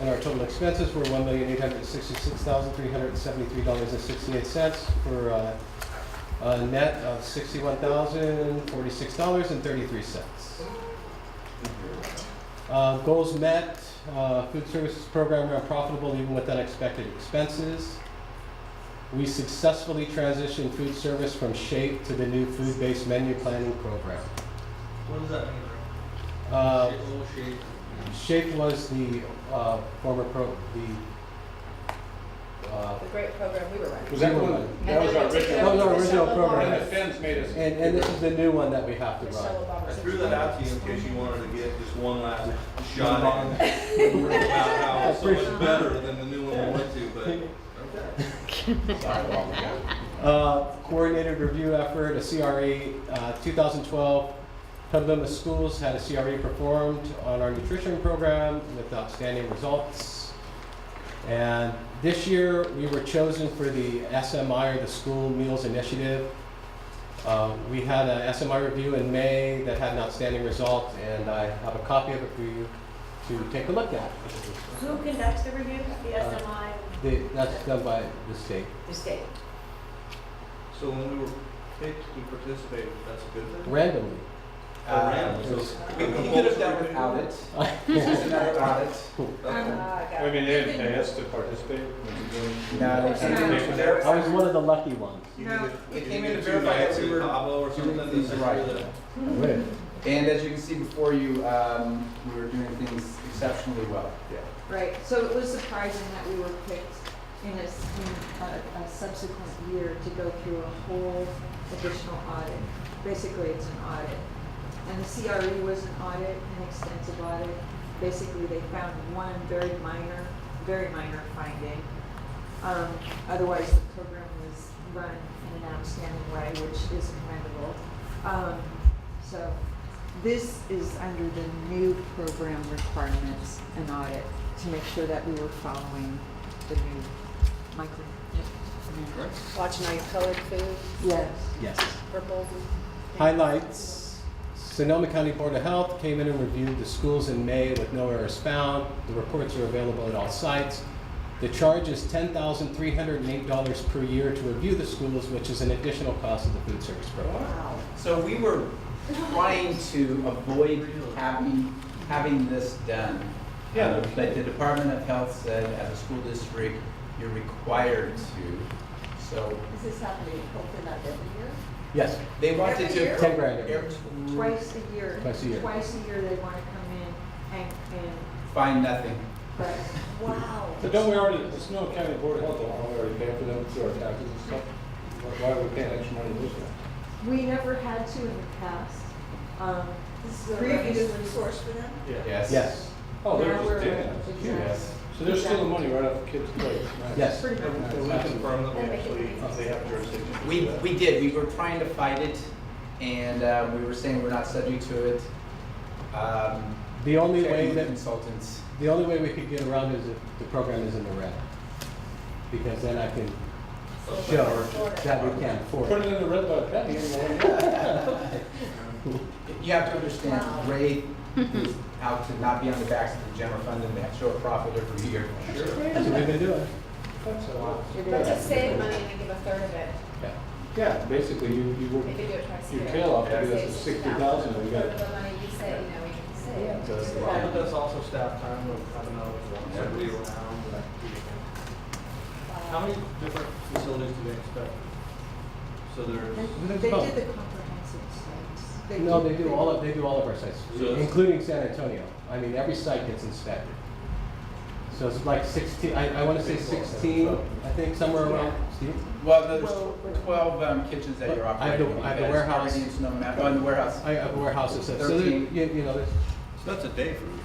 And our total expenses were one million eight hundred sixty-six thousand three hundred seventy-three dollars and sixty-eight cents for uh, a net of sixty-one thousand forty-six dollars and thirty-three cents. Uh, goals met, uh, food services program ran profitable even with unexpected expenses. We successfully transitioned food service from shape to the new food-based menu planning program. What does that mean, bro? Uh, Shape, little shape. Shape was the uh, former pro, the, uh, The great program we were running. Was that one, that was our That original, was our original and program. the feds made us. and, and this is the new one that we have to Michelle run. Obama. I threw that out to you in case you wanted to get just one last shot at it. about how it's so much better than the new one we went to, but okay. Uh, Coordinated review effort, a CRE, uh, 2012, Petaluma Schools had a CRE performed on our nutrition program with outstanding results. And this year, we were chosen for the SMI, or the School Meals Initiative. Uh, We had a SMI review in May that had an outstanding result, and I have a copy of it for you to take a look at. Who conducts the review? The Uh, SMI, The- That's done by the state. the state. So when we were picked, we participated, that's a good thing? randomly. Uh, random, so. We could have done without it. This is another audit. Um, Okay. Ah, got I it. mean, they didn't pay us to participate. We were No, they doing- There I was one of the lucky ones. You No, did they you came did in to two verify that nights we in were Pablo or doing something? things That's right. really- And as you can see before you, um, we were doing things exceptionally well. Right, so it was surprising that we were picked in a, s- in a- a subsequent year to go through a whole additional audit. Basically, it's an audit. And the CRE was an audit, an extensive audit. Basically, they found one very minor, very minor finding. Um, otherwise, the program was run in an outstanding way, which is commendable. Um, so, this is under the new program requirements and audit to make sure that we were following the new micro. Right. Watching all your colored food, Yes. Yes. purple. Highlights. Sonoma County Board of Health came in and reviewed the schools in May with no errors found. The reports are available at all sites. The charge is ten thousand three hundred and eight dollars per year to review the schools, which is an additional cost of the food service program. Wow. So we were trying to avoid having, having this done. Um, Yeah. But the Department of Health said, as a school district, you're required to. So, Is this happening, hopefully not every year? Yes. they wanted Every year? to. Ten grand. every- Every- Mm. Twice a year. Twice a year. Twice a year they want to come in and, and, Find nothing. but Wow. But don't we already, the Snow County Board of Health, don't we already pay for them through our taxes and stuff? Why- Why are we paying extra money this year? we never had to in the past. Um, This is a previously. revenue source for them? Yes. Yes, Oh, they're Now we're- just taking us. Yes. So they're stealing money right off the kids' plates. right? yes. Pretty much. Can we confirm that we actually, they have jurisdiction? to do We, that? we did, we were trying to fight it, and uh, we were saying we're not subject to it. Um, The only way Checking with that, consultants. the only way we could get around is if the program is in the red. Because then I can show that we can afford Put it. it in the red by penny and we'll- You have to understand, Ray is out to not be on the backs of the general fund and they show a profit every year. That's what we've been doing. That's a lot. Let's just save money and then give a third of it, Yeah. Yeah, basically, you, you work if you do it twice a your year. tail off to get us Save to sixty thousand, we got. Third of the money you say, you know, we can save. That's a Well, lot. but that's also staff time, of, I don't know, if somebody around. but- How many different facilities do they expect? So there's, They They did both. the comprehensive sites. No, they do all of, they do all of our sites, So- including San Antonio. I mean, every site gets inspected. So it's like sixteen, I, I wanna say sixteen, I think, somewhere around, Steve? Well, there's Well, we're- twelve um, kitchens that you're I have operating. the- I have the You guys warehouse. already in Sonoma- oh, in the warehouse. I have warehouses, so there, you, Thirteen. you know, there's, that's a day for you.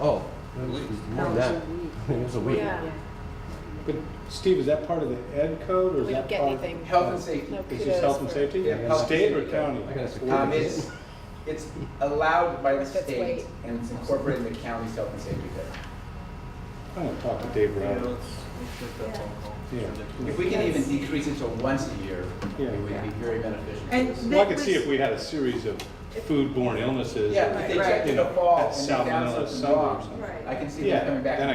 oh, there's more than that. It was a week. Yeah, But Steve, is that part of the ed code or we is don't that get part? anything. Health and safety. No It's just kudos health and for. safety? Yeah, health and State or safety. county? I gotta secure Um, this. it's, it's allowed by the If it's state weight. and it's incorporated in the county's health and safety code. I'm gonna talk to Dave You know, Brown. it's, it's just that phone call. It's Yeah. ridiculous. If we can even decrease it to once a year, Yeah. it would be very beneficial. And Well, I that could see was- if we had a series of foodborne illnesses. Yeah, or, if they you checked in the know, fall had and they found salmonella something somewhere or wrong, something. I can see Yeah, them coming back. then I